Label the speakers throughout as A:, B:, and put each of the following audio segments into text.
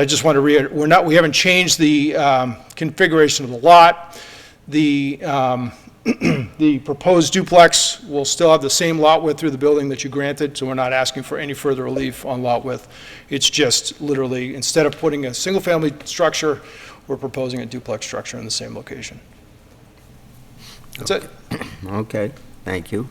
A: I just want to re, we're not, we haven't changed the um, configuration of the lot. The, um, the proposed duplex will still have the same lot width through the building that you granted, so we're not asking for any further relief on lot width. It's just literally, instead of putting a single-family structure, we're proposing a duplex structure in the same location. That's it.
B: Okay, thank you.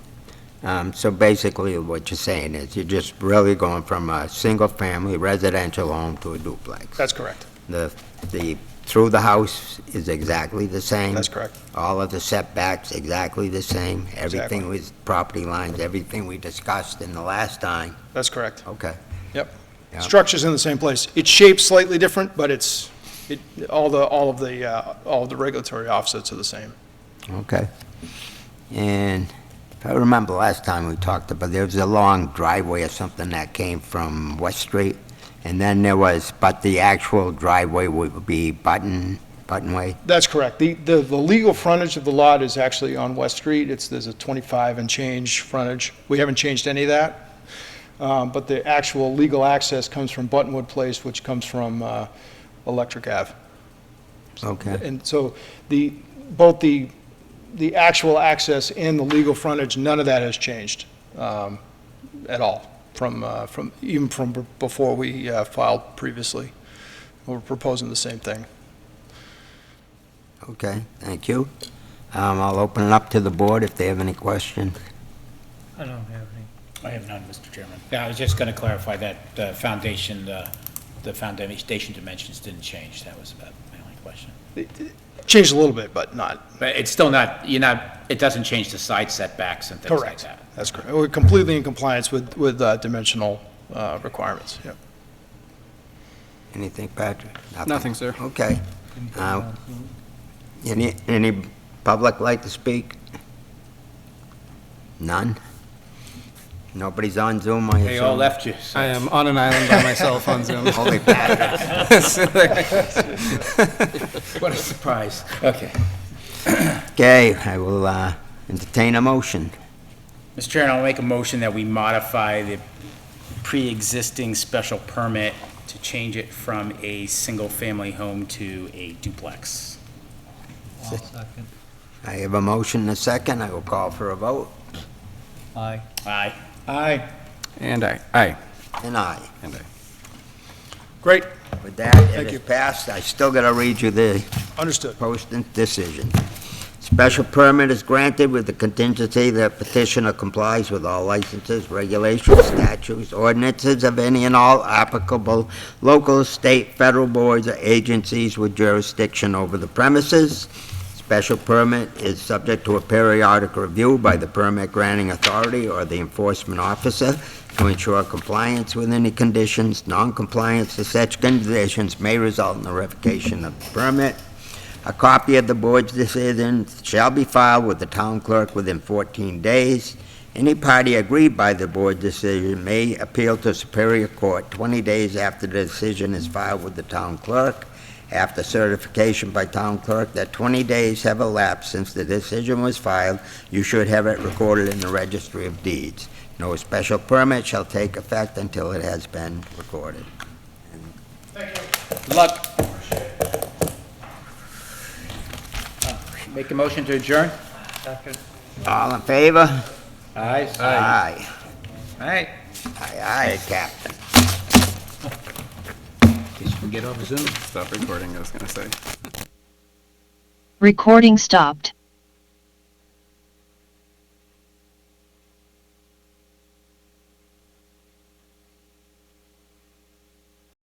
B: Um, So basically, what you're saying is you're just really going from a single-family residential home to a duplex.
A: That's correct.
B: The, the, through the house is exactly the same.
A: That's correct.
B: All of the setbacks exactly the same.
A: Exactly.
B: Everything with property lines, everything we discussed in the last time.
A: That's correct.
B: Okay.
A: Yep.
B: Yeah.
A: Structure's in the same place. Its shape's slightly different, but it's, it, all the, all of the, uh, all of the regulatory offsets are the same.
B: Okay. And if I remember last time we talked about, there was a long driveway or something that came from West Street, and then there was, but the actual driveway would be Button, Buttonway?
A: That's correct. The, the, the legal frontage of the lot is actually on West Street. It's, there's a 25 and change frontage. We haven't changed any of that. Um, but the actual legal access comes from Buttonwood Place, which comes from, uh, Electric Ave.
B: Okay,
A: And so the, both the, the actual access and the legal frontage, none of that has changed um, at all from, uh, from, even from b- before we uh, filed previously. We're proposing the same thing.
B: okay, thank you. Um, I'll open it up to the board if they have any questions.
C: I don't have any.
D: I have none, Mr. Chairman. Yeah, I was just going to clarify that the foundation, uh, the foundation dimensions didn't change. That was about my only question.
A: Changed a little bit, but not,
D: But it's still not, you're not, it doesn't change the side setbacks and things like
A: correct.
D: that.
A: That's correct. We're completely in compliance with, with uh, dimensional uh, requirements, yeah.
B: Anything, Patrick?
E: Nothing, sir.
B: Okay. Uh, Any, any public like to speak? None? Nobody's on Zoom, I assume?
D: They all left you.
E: I am on an island by myself on Zoom.
B: Holy Patrick.
D: What a surprise. Okay.
B: Okay, I will uh, entertain a motion.
D: Mr. Chairman, I'll make a motion that we modify the pre-existing special permit to change it from a single-family home to a duplex.
C: All second.
B: I have a motion and a second. I will call for a vote.
C: Aye.
D: Aye. Aye.
E: And I, aye,
B: And aye.
E: and I.
A: Great,
B: With that, it
A: Thank
B: is
A: you.
B: passed. I still got to read you the
A: understood.
B: posted decision. Special permit is granted with the contingency that petitioner complies with all licenses, regulations, statutes, ordinances of any and all applicable local, state, federal boards or agencies with jurisdiction over the premises. Special permit is subject to a periodic review by the permit granting authority or the enforcement officer to ensure compliance with any conditions. Non-compliance to such conditions may result in the revocation of the permit. A copy of the board's decision shall be filed with the town clerk within 14 days. Any party aggrieved by the board decision may appeal to Superior Court 20 days after the decision is filed with the town clerk. After certification by town clerk that 20 days have elapsed since the decision was filed, you should have it recorded in the registry of deeds. No special permit shall take effect until it has been recorded.
D: Good luck. Make a motion to adjourn?
C: Second.
B: All in favor?
D: Aye.
B: Aye.
D: Aye.
B: Aye, aye, Captain.
D: Guess we get off Zoom.
E: Stop recording, I was gonna say.
F: Recording stopped.